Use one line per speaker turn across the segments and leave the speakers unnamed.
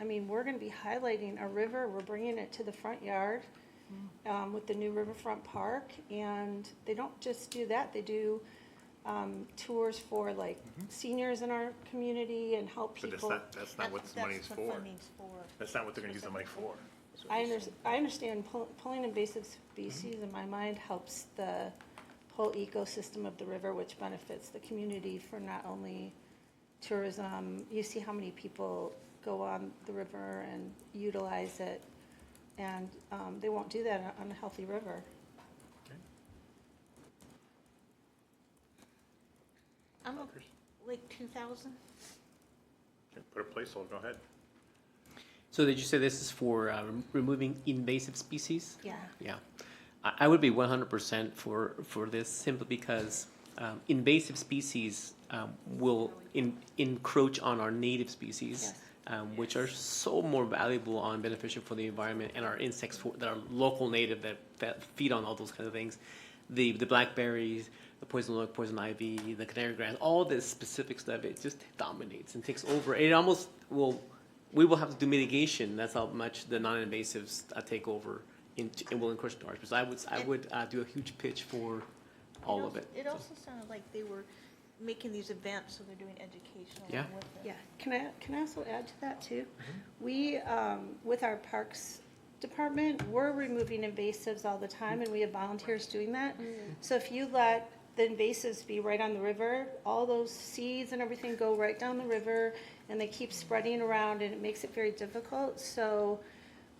I mean, we're gonna be highlighting a river, we're bringing it to the front yard, um, with the new Riverfront Park, and they don't just do that, they do, um, tours for like seniors in our community and help
But that's
people.
not, that's not what the money's
That's what Oh.
for.
funding's for.
That's not what they're gonna use the money for.
I under, I understand pull- pulling invasive species in my mind helps the whole ecosystem of the river, which benefits the community for not only tourism, you see how many people go on the river and utilize it, and, um, they won't do that on a healthy river.
I'm, o- like, two thousand?
Okay, Put a placeholder, go ahead.
So did you say this is for uh, rem- removing invasive species?
Yeah.
Yeah, I, I would be one hundred percent for for this simply because um, invasive species um, will in, encroach on our native species.
Yes.
Um, which are so more valuable and beneficial for the environment and our insects for, that are local native that, that feed on all those kind of things. The, the blackberries, the poison oak, poison ivy, the canary grass, all the specifics of it just dominates and takes over. It almost will, we will have to do mitigation. That's how much the non-invasives uh, take over and, and will encroach into our space. I would, I would uh, do a huge pitch for all of it.
It also sounded like they were making these events, so they're doing educational
Yeah.
with it.
Yeah, can I, can I also add to that too? We, um, with our Parks Department, we're removing invasives all the time and we have volunteers doing that. So if you let the invasives be right on the river, all those seeds and everything go right down the river and they keep spreading around and it makes it very difficult. So,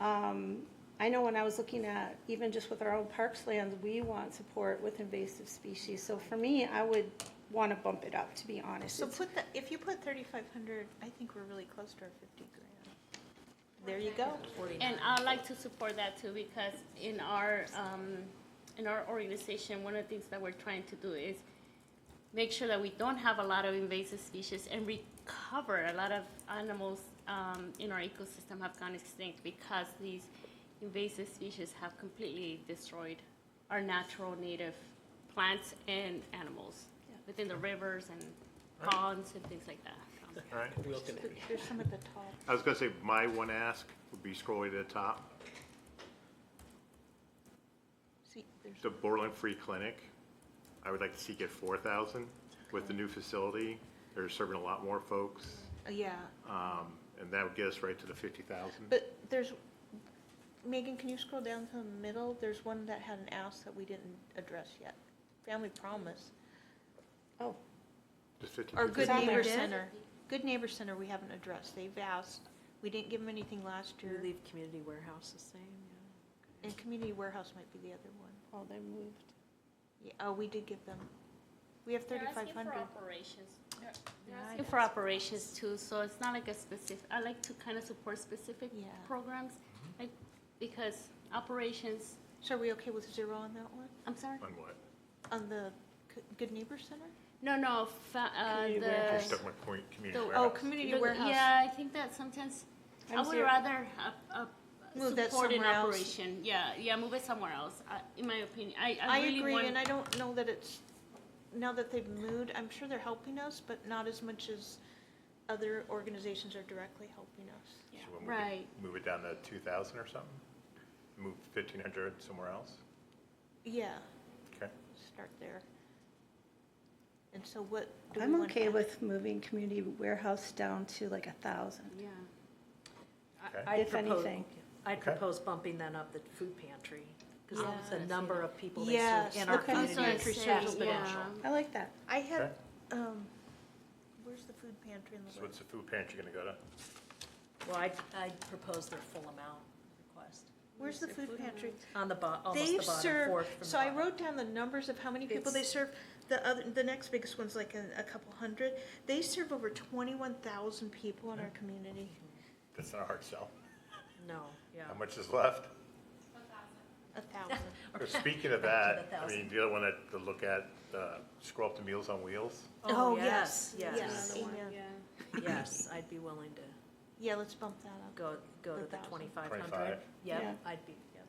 um, I know when I was looking at, even just with our own parks lands, we want support with invasive species. So for me, I would wanna bump it up, to be honest.
So
It's-
put the, if you put thirty-five hundred, I think we're really close to our fifty grand. There you go.
And I'd like to support that too, because in our, um, in our organization, one of the things that we're trying to do is make sure that we don't have a lot of invasive species and recover a lot of animals, um, in our ecosystem have gone extinct because these invasive species have completely destroyed our natural native plants and animals within the rivers and ponds and things like that. So-
All right.
There's some at the top.
I was gonna say, my one ask would be scrolling to the top,
See, there's,
the Borland Free Clinic. I would like to seek it four thousand with the new facility. They're serving a lot more folks,
uh, yeah,
um, and that would get us right to the fifty thousand.
but there's, Megan, can you scroll down to the middle? There's one that had an ask that we didn't address yet. Family Promise,
Oh,
or Good
Sound like
Neighbor
it.
Center. Good Neighbor Center, we haven't addressed. They've asked, we didn't give them anything last
Do you
year.
leave community warehouse the same? yeah?
And Community Warehouse might be the other one.
oh, they moved.
Yeah, oh, we did give them, we have thirty-five
They're
hundred.
asking for operations. They're- they're
Yeah, I
asking for operations too, so it's not like a specific, I like to kind of support specific
Yeah. Mm-hmm.
programs, like, because operations,
So are we okay with zero on that one?
I'm sorry?
On what?
On the C- Good Neighbor Center? Oh,
No, no, fa- uh,
Community
I
warehouse.
the.
stuck my point, community
The- oh,
Oh,
warehouse.
Community
the-
Warehouse.
Yeah, I think that sometimes, I
I'm
would
zero.
rather have, uh,
Move that
support an
somewhere else.
operation, yeah, yeah, move it somewhere else, I- in my opinion, I,
I
I really
agree, and
want.
I don't know that it's, now that they've moved, I'm sure they're helping us, but not as much as other organizations are directly helping us.
yeah,
So when we could
Right,
Move it down to two thousand or something? Move fifteen hundred somewhere else?
Yeah,
Okay.
start there. And so what do we
I'm
want to
okay
add?
with moving community warehouse down to like a thousand.
yeah,
Okay.
I- I'd
If
propose-
anything.
I'd
Okay.
propose bumping then up the food pantry, because
Yeah.
the number of people they
Yes,
serve in our
okay.
community
Also,
is
it's saying,
exponential.
yeah.
I like that.
I had,
Okay.
um, where's the food pantry in the
So
list?
what's the food pantry gonna go to?
Well, I'd, I'd propose their full amount request,
Where's the food pantry?
on the bo, almost the
They've
bottom,
served,
fourth from the
so I
bottom.
wrote down the numbers of how many people they
It's-
serve. The other, the next biggest one's like a, a couple hundred. They serve over twenty-one thousand people in our
Mm.
community.
That's not a hard sell.
No, yeah.
How much is left?
A thousand.
So Speaking of
Back
that,
to the
I mean, the other one that, to look at, uh, scroll up to Meals on Wheels.
Oh, yes,
Yes,
yes.
Another one,
Yeah.
yeah.
yes, I'd be willing to
Yeah, let's bump that up.
go, go to
The
the
thousand.
twenty-five hundred.
25.
Yeah.
Yep, I'd be, yep.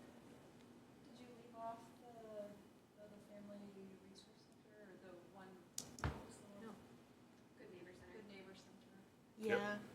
Did you leave off the, the other family resource center or the one, what was the one?
No.
Good Neighbor Center. Good Neighbor Center.
Yeah,
Yep.